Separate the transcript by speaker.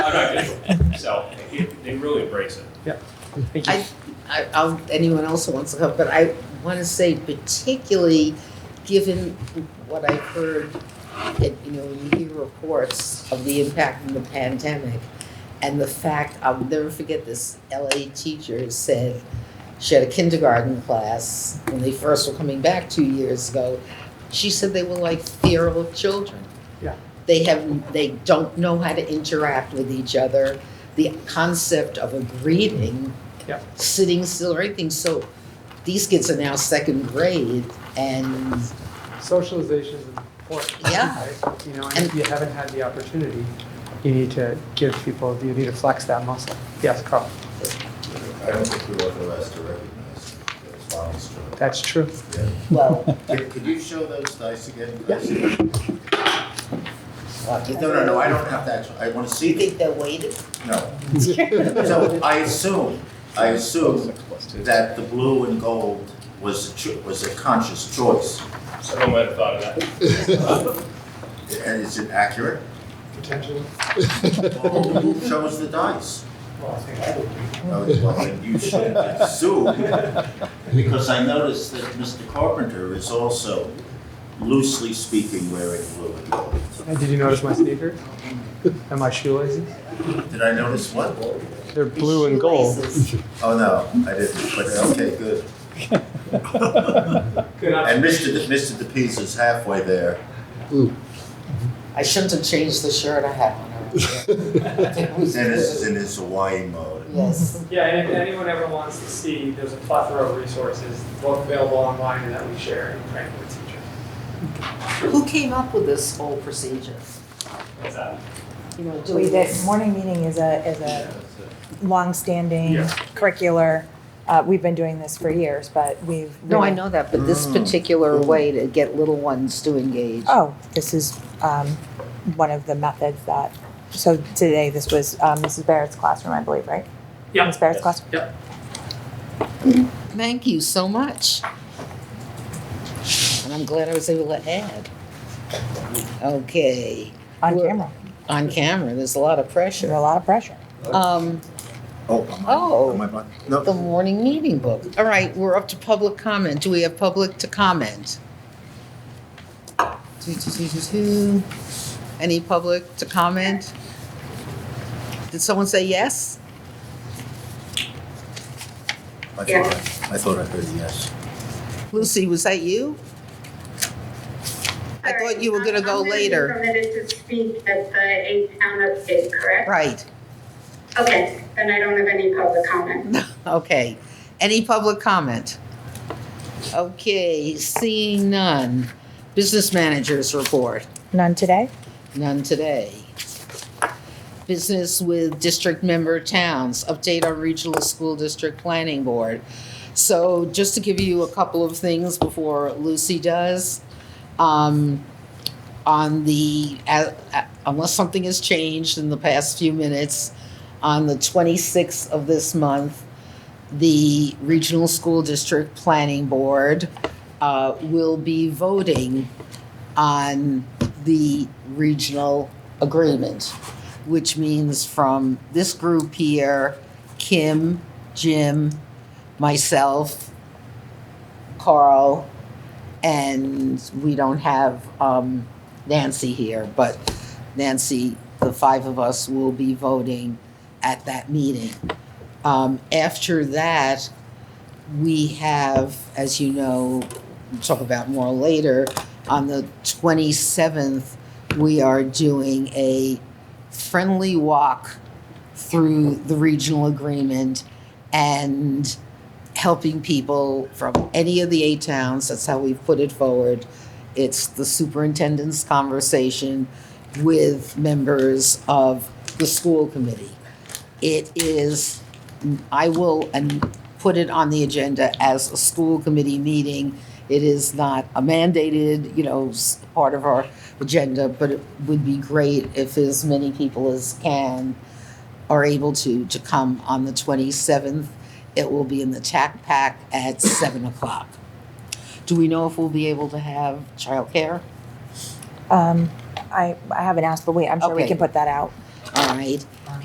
Speaker 1: I'm not gonna, so, it- they really embrace it.
Speaker 2: Thank you.
Speaker 3: I, I, I'll, anyone else who wants to come, but I want to say particularly, given what I've heard, that, you know, when you hear reports of the impact of the pandemic, and the fact, I'll never forget this LA teacher said, she had a kindergarten class when they first were coming back two years ago. She said they were like feral children.
Speaker 2: Yeah.
Speaker 3: They have, they don't know how to interact with each other. The concept of a greeting,
Speaker 2: Yeah.
Speaker 3: sitting still or anything. So these kids are now second grade and
Speaker 2: Socialization is important.
Speaker 3: Yeah.
Speaker 2: right? You know, and
Speaker 3: And-
Speaker 2: if you haven't had the opportunity, you need to give people, you need to flex that muscle. Yes, Carl,
Speaker 4: I don't think we authorized to recognize that it's Bonnie Stewart.
Speaker 2: that's true.
Speaker 4: Yeah.
Speaker 3: well,
Speaker 4: Could could you show those dice again?
Speaker 2: Yeah.
Speaker 4: No, no, no, I don't have to actually, I want to
Speaker 3: you
Speaker 4: see,
Speaker 3: think they're weighted?
Speaker 4: no. So I assume, I assume that the blue and gold was, a cho- was a conscious choice.
Speaker 1: Someone might have thought of that.
Speaker 4: And is it accurate?
Speaker 2: Potentially.
Speaker 4: Well, Who chose the dice?
Speaker 2: Well, I think I would.
Speaker 4: No, it wasn't. You should assume, because I noticed that Mr. Carpenter is also loosely speaking wearing blue and gold.
Speaker 2: And did you notice my sneakers? And my shoelaces?
Speaker 4: Did I notice what?
Speaker 2: They're blue and gold.
Speaker 3: Shoelaces.
Speaker 4: Oh, no, I didn't, but okay, good. And Mr. De- Mr. DePiece is halfway there.
Speaker 3: I shouldn't have changed the shirt I had on
Speaker 4: Dennis is in his Hawaiian mode.
Speaker 3: Yes.
Speaker 5: Yeah, and if anyone ever wants to see, there's a plethora of resources both available online and that we share and train with teachers.
Speaker 3: Who came up with this whole procedure?
Speaker 5: That's that.
Speaker 3: You know,
Speaker 6: We,
Speaker 3: doing
Speaker 6: the
Speaker 3: this.
Speaker 6: morning meeting is a, is a longstanding
Speaker 5: Yeah.
Speaker 6: curricular. Uh, we've been doing this for years, but we've.
Speaker 3: No, I
Speaker 6: really-
Speaker 3: know that, but
Speaker 4: Mm.
Speaker 3: this particular way to get little ones to engage.
Speaker 6: Oh, this is, um, one of the methods that, so today this was, um, Mrs. Barrett's classroom, I believe, right?
Speaker 5: Yeah.
Speaker 6: Ms. Barrett's
Speaker 5: Yes.
Speaker 6: classroom?
Speaker 5: Yep.
Speaker 3: Thank you so much. And I'm glad I was able to add. Okay,
Speaker 6: On
Speaker 3: We're-
Speaker 6: camera.
Speaker 3: on camera, there's a lot of
Speaker 6: There's a
Speaker 3: pressure.
Speaker 6: lot of pressure.
Speaker 3: Um,
Speaker 4: Oh.
Speaker 3: Oh.
Speaker 4: Am I blind?
Speaker 3: the
Speaker 4: No,
Speaker 3: morning meeting book. All right, we're up to public comment. Do we have public to comment? Two, two, two, two, two. Any public to comment? Did someone say yes?
Speaker 4: I thought, I I thought I heard a yes.
Speaker 3: Lucy, was that you? I
Speaker 7: Sorry,
Speaker 3: thought you were
Speaker 7: um,
Speaker 3: gonna go
Speaker 7: I'm be
Speaker 3: later.
Speaker 7: permitted to speak at the eight town update, correct?
Speaker 3: Right,
Speaker 7: Okay, then I don't have any public comment.
Speaker 3: okay. Any public comment? Okay, seeing none. Business managers report,
Speaker 6: None today?
Speaker 3: none today. Business with district member towns, update on regional school district planning board. So just to give you a couple of things before Lucy does. um, on the, uh, uh, unless something has changed in the past few minutes, on the 26th of this month, the Regional School District Planning Board uh, will be voting on the regional agreement, which means from this group here, Kim, Jim, myself, Carl, and we don't have um, Nancy here, but Nancy, the five of us will be voting at that meeting. Um, After that, we have, as you know, we'll talk about more later, on the 27th, we are doing a friendly walk through the regional agreement and helping people from any of the eight towns. That's how we've put it forward. It's the superintendent's conversation with members of the school committee. It is, I will and put it on the agenda as a school committee meeting. It is not a mandated, you know, s- part of our agenda, but it would be great if as many people as can are able to, to come on the 27th. It will be in the TAC Pack at 7 o'clock. Do we know if we'll be able to have childcare?
Speaker 6: Um, I, I haven't asked, but we, I'm sure we
Speaker 3: Okay.
Speaker 6: can put that out.
Speaker 3: All right.